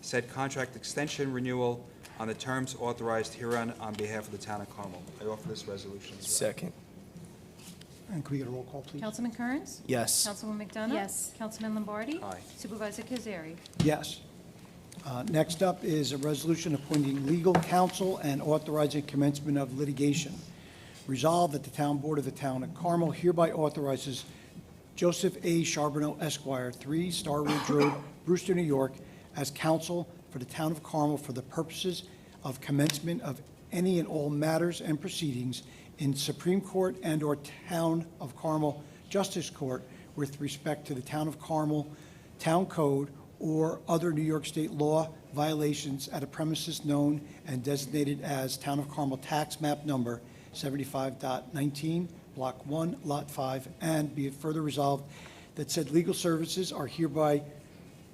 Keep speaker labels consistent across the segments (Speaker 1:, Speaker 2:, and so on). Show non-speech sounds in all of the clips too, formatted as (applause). Speaker 1: said contract extension renewal on the terms authorized herein on behalf of the town of Carmel. I offer this resolution as read.
Speaker 2: Second.
Speaker 3: And could we get a roll call, please?
Speaker 4: Councilman Kearns?
Speaker 2: Yes.
Speaker 4: Councilwoman McDonough?
Speaker 5: Yes.
Speaker 4: Councilman Lombardi?
Speaker 1: Aye.
Speaker 4: Supervisor Kazari?
Speaker 3: Yes. Uh, Next up is a resolution appointing legal counsel and authorizing commencement of litigation. Resolved that the Town Board of the Town of Carmel hereby authorizes Joseph A. Charbonneau Esquire, 3 Star (coughs) Ridge Road, Brewster, New York, as counsel for the Town of Carmel for the purposes of commencement of any and all matters and proceedings in Supreme Court and/or Town of Carmel Justice Court with respect to the Town of Carmel Town Code or other New York State law violations at a premises known and designated as Town of Carmel Tax Map Number 75.19, Block 1, Lot 5, and be it further resolved that said legal services are hereby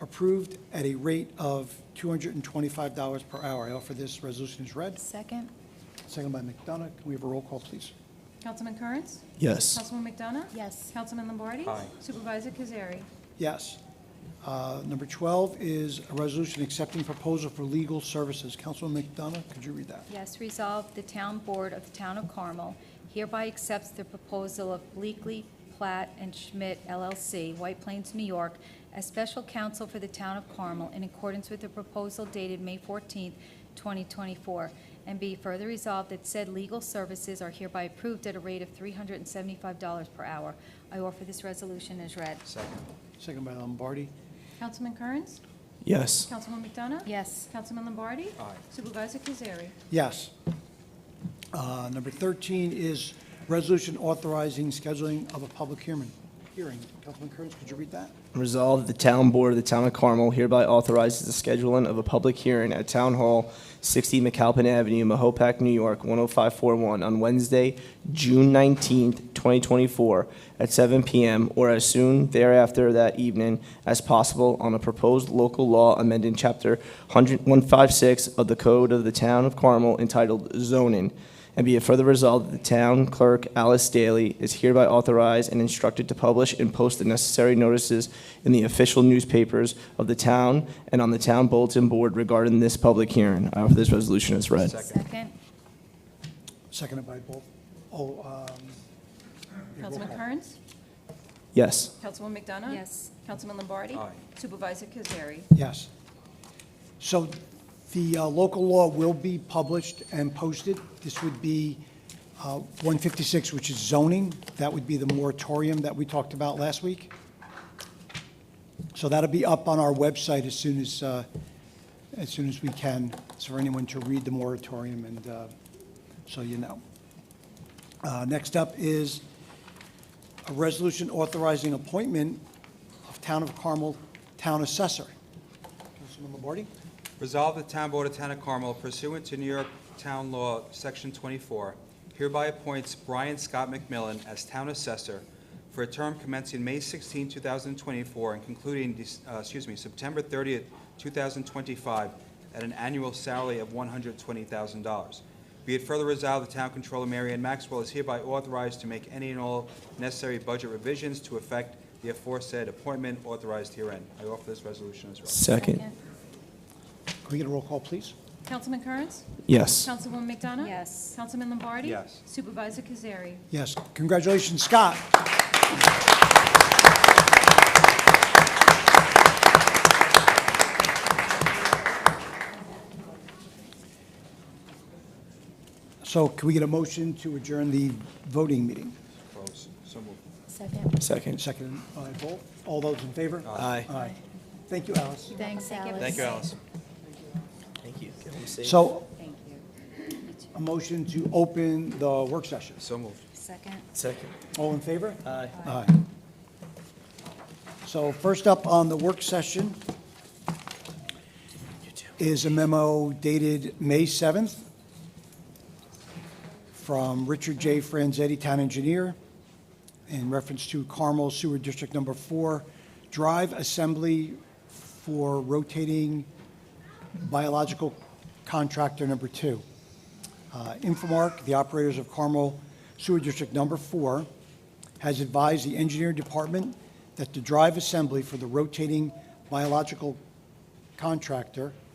Speaker 3: approved at a rate of $225 per hour. I offer this resolution as read.
Speaker 5: Second?
Speaker 3: Second by McDonough. Can we have a roll call, please?
Speaker 4: Councilman Kearns?
Speaker 2: Yes.
Speaker 4: Councilwoman McDonough?
Speaker 5: Yes.
Speaker 4: Councilman Lombardi?
Speaker 1: Aye.
Speaker 4: Supervisor Kazari?
Speaker 3: Yes. Uh, Number 12 is a resolution accepting proposal for legal services. Councilman McDonough, could you read that?
Speaker 5: Yes, resolved, the town board of the town of Carmel hereby accepts the proposal of Bleakley, Platt, and Schmidt LLC, White Plains, New York, as special counsel for the town of Carmel in accordance with the proposal dated May 14th, 2024. And be further resolved that said legal services are hereby approved at a rate of $375 per hour. I offer this resolution as read.
Speaker 1: Second.
Speaker 3: Second by Lombardi.
Speaker 4: Councilman Kearns?
Speaker 2: Yes.
Speaker 4: Councilwoman McDonough?
Speaker 5: Yes.
Speaker 4: Councilman Lombardi?
Speaker 1: Aye.
Speaker 4: Supervisor Kazari?
Speaker 3: Yes. Uh, Number 13 is resolution authorizing scheduling of a public hearing. Hearing. Councilman Kearns, could you read that?
Speaker 2: Resolved, the town board of the town of Carmel hereby authorizes the scheduling of a public hearing at Town Hall, 60 McAlpin Avenue, Mahopac, New York, 10541, on Wednesday, June 19th, 2024, at 7 PM or as soon thereafter that evening as possible on a proposed local law amending Chapter 100 156 of the Code of the Town of Carmel entitled zoning, And be it further resolved that the town clerk, Alice Daly, is hereby authorized and instructed to publish and post the necessary notices in the official newspapers of the town and on the town bulletin board regarding this public hearing. I offer this resolution as read.
Speaker 1: Second.
Speaker 5: Second?
Speaker 3: Seconded by both. Oh, um, yeah, roll
Speaker 4: Councilman
Speaker 3: call.
Speaker 4: Kearns?
Speaker 2: Yes.
Speaker 4: Councilwoman McDonough?
Speaker 5: Yes.
Speaker 4: Councilman Lombardi?
Speaker 1: Aye.
Speaker 4: Supervisor Kazari?
Speaker 3: Yes. So the uh, local law will be published and posted. This would be uh, 156, which is zoning. That would be the moratorium that we talked about last week. So that'll be up on our website as soon as, uh, as soon as we can, It's for anyone to read the moratorium and uh, so you know. Uh, Next up is a resolution authorizing appointment of Town of Carmel Town Assessor. Councilman Lombardi?
Speaker 1: Resolved, the town board of Town of Carmel pursuant to New York Town Law, Section 24, hereby appoints Brian Scott McMillan as town assessor for a term commencing May 16, 2024, and concluding, Dec- uh, excuse me, September 30, 2025, at an annual salary of $120,000. Be it further resolved, the town controller, Mary Ann Maxwell, is hereby authorized to make any and all necessary budget revisions to effect the aforesaid appointment authorized herein. I offer this resolution as read.
Speaker 2: Second.
Speaker 3: Can we get a roll call, please?
Speaker 4: Councilman Kearns?
Speaker 2: Yes.
Speaker 4: Councilwoman McDonough?
Speaker 5: Yes.
Speaker 4: Councilman Lombardi?
Speaker 1: Yes.
Speaker 4: Supervisor Kazari?
Speaker 3: Yes, congratulations, Scott. So can we get a motion to adjourn the voting meeting?
Speaker 1: Close. So moved.
Speaker 5: Second.
Speaker 2: Second.
Speaker 3: Second by Vol. All those in favor?
Speaker 2: Aye.
Speaker 3: Aye. Thank you, Alice.
Speaker 5: Thanks, Alice.
Speaker 1: Thank you, Alice.
Speaker 2: Thank you.
Speaker 3: So
Speaker 5: Thank you.
Speaker 3: a motion to open the work session.
Speaker 1: So moved.
Speaker 5: Second?
Speaker 2: Second.
Speaker 3: All in favor?
Speaker 2: Aye.
Speaker 3: Aye. So first up on the work session is a memo dated May 7th from Richard J. Franzetti, Town Engineer, in reference to Carmel Sewer District Number 4 Drive Assembly for rotating biological contractor number 2. Uh, Infomark, the operators of Carmel Sewer District Number Four, has advised the engineering department that the drive assembly for the rotating biological contractor